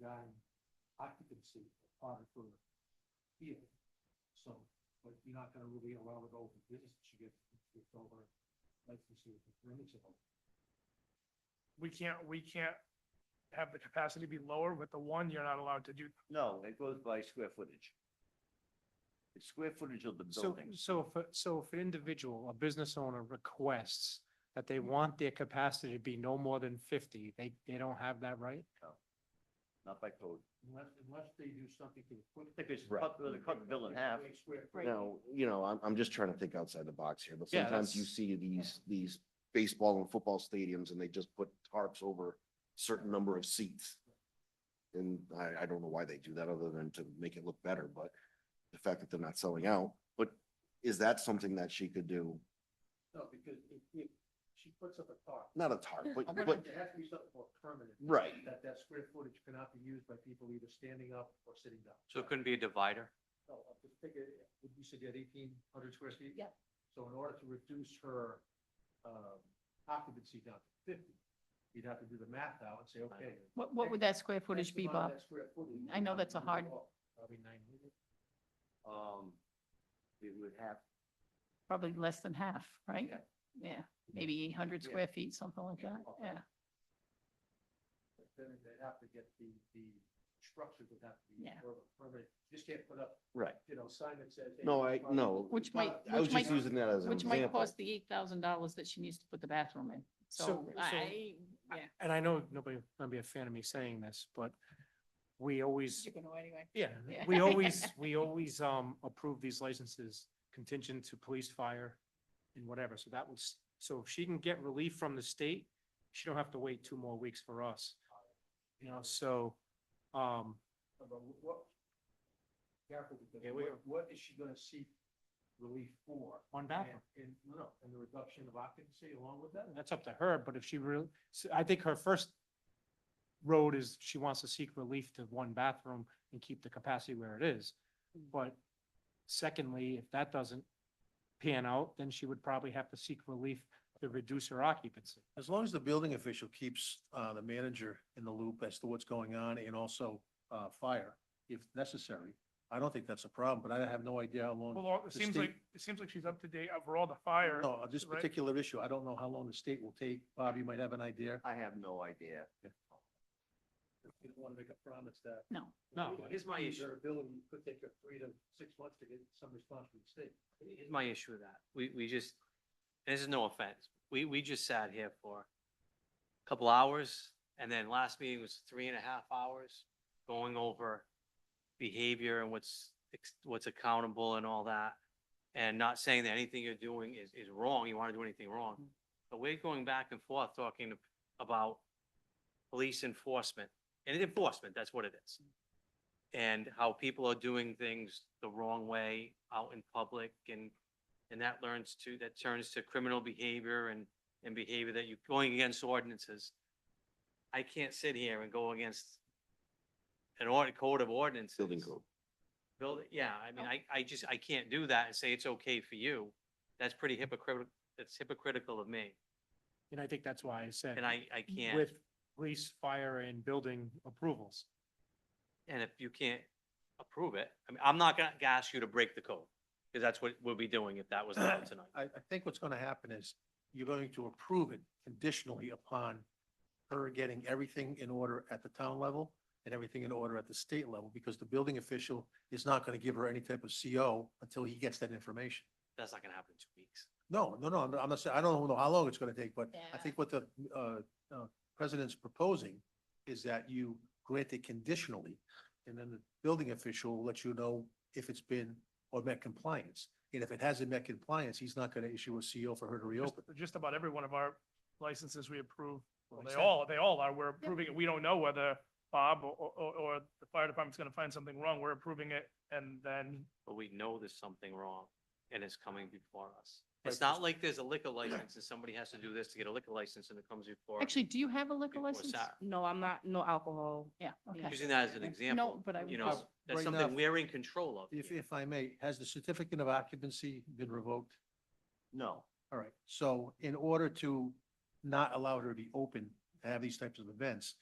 nine occupancy on it for here. So, but you're not gonna really allow it over business, you get, get over licensing for permissible. we can't, we can't have the capacity be lower with the one, you're not allowed to do. No, it goes by square footage. It's square footage of the So, buildings. so if, a- so if an individual, a business owner requests that they Mm-hmm. want their capacity to be no more than fifty, they, they don't have that right? not by code. Unless, unless they do something to equip. I think it's Right. cut, the cut bill in half. Now, you know, I'm, I'm just trying to think outside the box here, but Yeah, sometimes you that's- see these, these baseball and football stadiums and they just put tarps over certain number of seats. And I, I don't know why they do that other than to make it look better, but the fact that they're not selling out, but is that something that she could do? No, because if, if she puts up a thought, Not a tarp, but, but, there has to be something more permanent. right, That that square footage cannot be used by people either standing up or sitting down. So it couldn't be a divider? So I just figure, would you said you had eighteen hundred square feet? Yep. So in order to reduce her um, occupancy down to fifty, you'd have to do the math now and say, okay. What, what would that square X footage be, amount of Bob? that square footage I know that's a hard- Probably nine hundred. Um, it would have, Probably less than half, right? Yeah. Yeah, maybe eight hundred Yeah. square feet, something like that, Okay. yeah. But Then they'd have to get the, the structure would have to be Yeah. more of a permanent. You just can't put up, right. you know, sign that says. hey, No, this I, is part of- no. Which might, I was which just might, using that as an which might example. cost the eight thousand dollars that she needs to put the bathroom in. So So- so- I, yeah. And I know nobody, gonna be a fan of me saying this, but we always, You're gonna anyway. yeah, Yeah. we always, we always, um, approve these licenses contingent to police, fire and whatever. So that was, so if she can get relief from the state, she don't have to wait two more weeks for us. You know, so, um, But what? Careful, because Yeah, we what, what is she gonna seek relief for? one bathroom. And, and, no, no, and the reduction of occupancy along with that? that's up to her, but if she really, so I think her first road is she wants to seek relief to one bathroom and keep the capacity where it is. But secondly, if that doesn't pan out, then she would probably have to seek relief to reduce her occupancy. As long as the building official keeps uh, the manager in the loop as to what's going on and also uh, fire if necessary, I don't think that's a problem, but I have no idea how long, Well, it The seems state- like, it seems like she's up to date overall, the fire. no, on this Right. particular issue, I don't know how long the state will take. Bob, you might have an idea. I have no idea. You don't wanna make a promise that. No, No, here's my issue. Their ability could take her three to six months to get some response from the state. Here's my issue with that. We, we just, and this is no offense. We, we just sat here for a couple hours and then last meeting was three and a half hours going over behavior and what's, ex- what's accountable and all that. And not saying that anything you're doing is, is wrong. You want to do anything wrong. But we're going back and forth talking about police enforcement and enforcement, that's what it is. And how people are doing things the wrong way out in public and, and that learns to, that turns to criminal behavior and, and behavior that you're going against ordinances. I can't sit here and go against an ord, code of ordinances. Building code. Build, yeah, I Oh. mean, I, I just, I can't do that and say it's okay for you. That's pretty Mm-hmm. hypocritical, that's hypocritical of me, and I think that's why I said. and I, I can't. With police, fire and building approvals. And if you can't approve it, I mean, I'm not gonna ask you to break the code, because that's what we'll be doing if that was allowed tonight. I, I think what's going to happen is you're going to approve it conditionally upon her getting everything in order at the town level and everything in order at the state level, because the building official is not going to give her any type of CO until he gets that information. That's not gonna happen in two weeks. No, no, no, I'm I'm not saying, I don't know how long it's gonna take, but I think what the uh, uh, president's proposing is that you grant it conditionally, and then the building official will let you know if it's been or met compliance. And if it hasn't met compliance, he's not gonna issue a CO for her to Just- reopen. Just about every one of our licenses we approve, well, they Exactly. all, they all are, we're approving it. We don't know whether Bob or, or, or the fire department's gonna find something wrong. We're approving it and then But we know there's something wrong, and it's coming before us. It's Right, not just- like there's a liquor license and somebody has to do this to get a liquor license and it comes before. actually, do you have a liquor Before license? Sarah. No, I'm not, no alcohol. Yeah, okay. Using that as an No, example, but I you would- know, Bob, that's right something now- we're in control of. If, here. if I may, has the certificate of occupancy been revoked? No, All right, so in order to not allow her to be open to have these types of events,